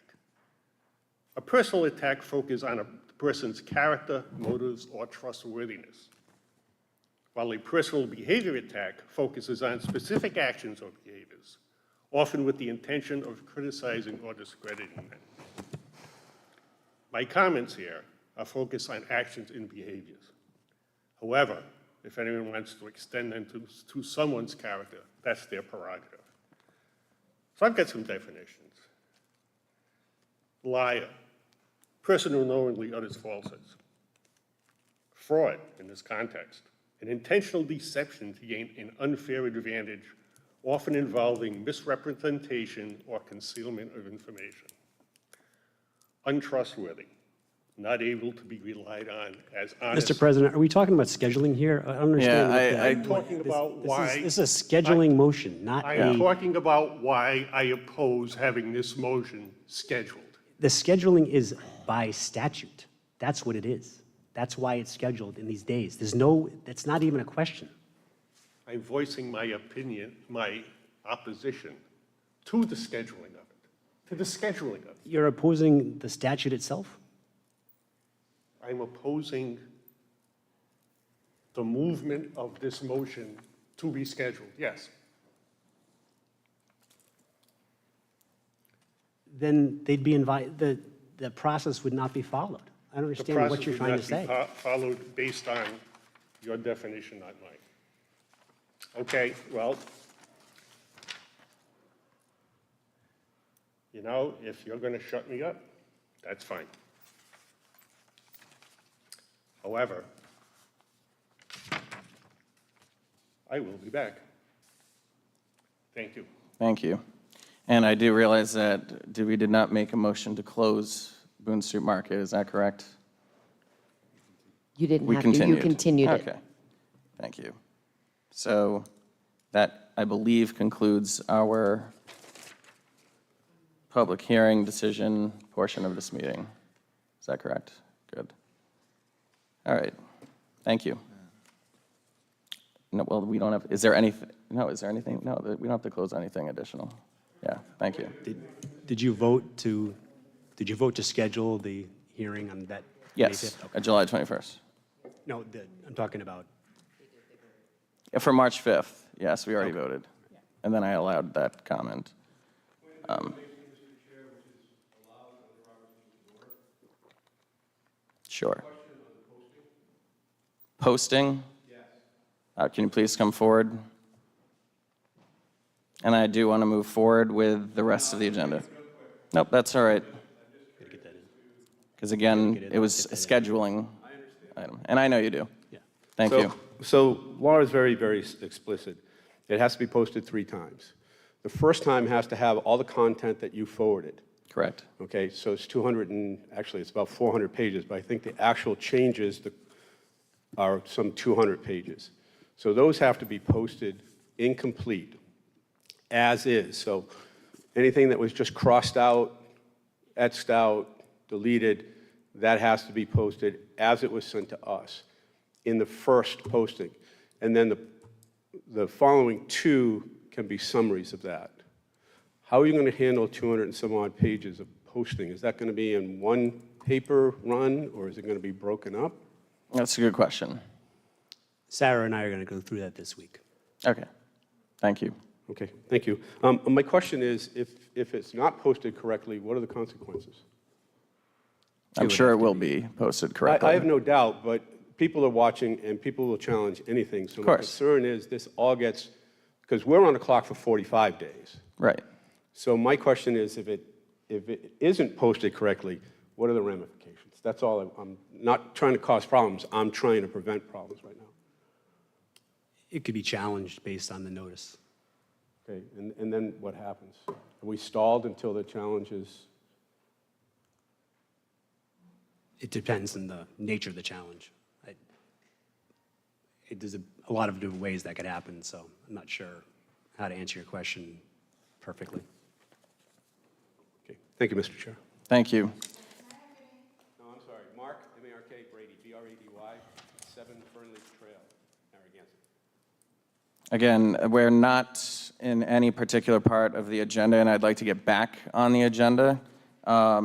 A personal attack focuses on a person's character, motives, or trustworthiness, while a personal behavior attack focuses on specific actions or behaviors, often with the intention of criticizing or discrediting them. My comments here are focused on actions and behaviors. However, if anyone wants to extend them to, to someone's character, that's their prerogative. So I've got some definitions. Liar, person who knowingly utters falsehoods. Fraud, in this context, an intentional deception to gain an unfair advantage, often involving misrepresentation or concealment of information. Untrustworthy, not able to be relied on as honest. Mr. President, are we talking about scheduling here? I don't Yeah, understand. what the- I, I, I'm talking about This is- why. This is a scheduling motion, not I am a, talking about why I oppose having this motion scheduled. the scheduling is by statute. That's what it is. That's why it's scheduled in these days. There's no, that's not even a question. I'm voicing my opinion, my opposition to the scheduling of it, to the scheduling of it. You're opposing the statute itself? I'm opposing the movement of this motion to be scheduled, yes. Then they'd be invited, the, the process would not be followed. I don't The understand what process you're would trying to not be say. fo- followed based on your definition, not mine. Okay, well, you know, if you're going to shut me up, that's fine. However, I will be back. Thank you. thank you. And I do realize that did- we did not make a motion to close Boone Street Market, is that correct? You didn't We have to, you continued. continued it. Okay, thank you. So that, I believe, concludes our public hearing decision portion of this meeting. Is that correct? Good. All right, thank you. No, well, we don't have, is there anything, no, is there anything, no, th- we don't have to close anything additional. Yeah, thank you. Did- Did you vote to, did you vote to schedule the hearing on that? May Yes, 5th? uh, July 21st. No, the- I'm talking about, Yeah, For March 5th, yes, we already voted. And then I allowed that comment. Um, Sure. Posting? Uh, Can you please come forward? And I do want to move forward with the rest of the agenda. Nope, that's all right. Because again, it was a scheduling item, and I know you do. Thank So- you. So law is very, very s- explicit. It has to be posted three times. The first time has to have all the content that you forwarded. Correct. Okay, so it's 200 and, actually, it's about 400 pages, but I think the actual changes the- are some 200 pages. So those have to be posted incomplete, as is. So anything that was just crossed out, etched out, deleted, that has to be posted as it was sent to us in the first posting. And then the, the following two can be summaries of that. How are you going to handle 200 and some odd pages of posting? Is that going to be in one paper run, or is it going to be broken up? That's a good question. Sarah and I are going to go through that this week. Okay, thank you. Okay, thank you. Um, My question is, if, if it's not posted correctly, what are the consequences? I'm sure it will be posted I, correctly. I have no doubt, but people are watching, and people will challenge anything. So my course. concern is, this all gets, because we're on a clock for 45 days. Right. So my question is, if it, if it isn't posted correctly, what are the ramifications? That's all, I'm- I'm not trying to cause problems, I'm trying to prevent problems right now. It could be challenged based on the notice. Okay, and, and then what happens? Are we stalled until the challenge is, It depends on the nature of the challenge. I- It, there's a, a lot of different ways that could happen, so I'm not sure how to answer your question perfectly. okay, thank you, Mr. Chair. Thank you. No, I'm sorry, Mark, M-A-R-K, Brady, E B-R-A-D-Y, 7 Fernley Trail, Narragansett. Again, we're not in any particular part of the agenda, and I'd like to get back on the agenda. Um,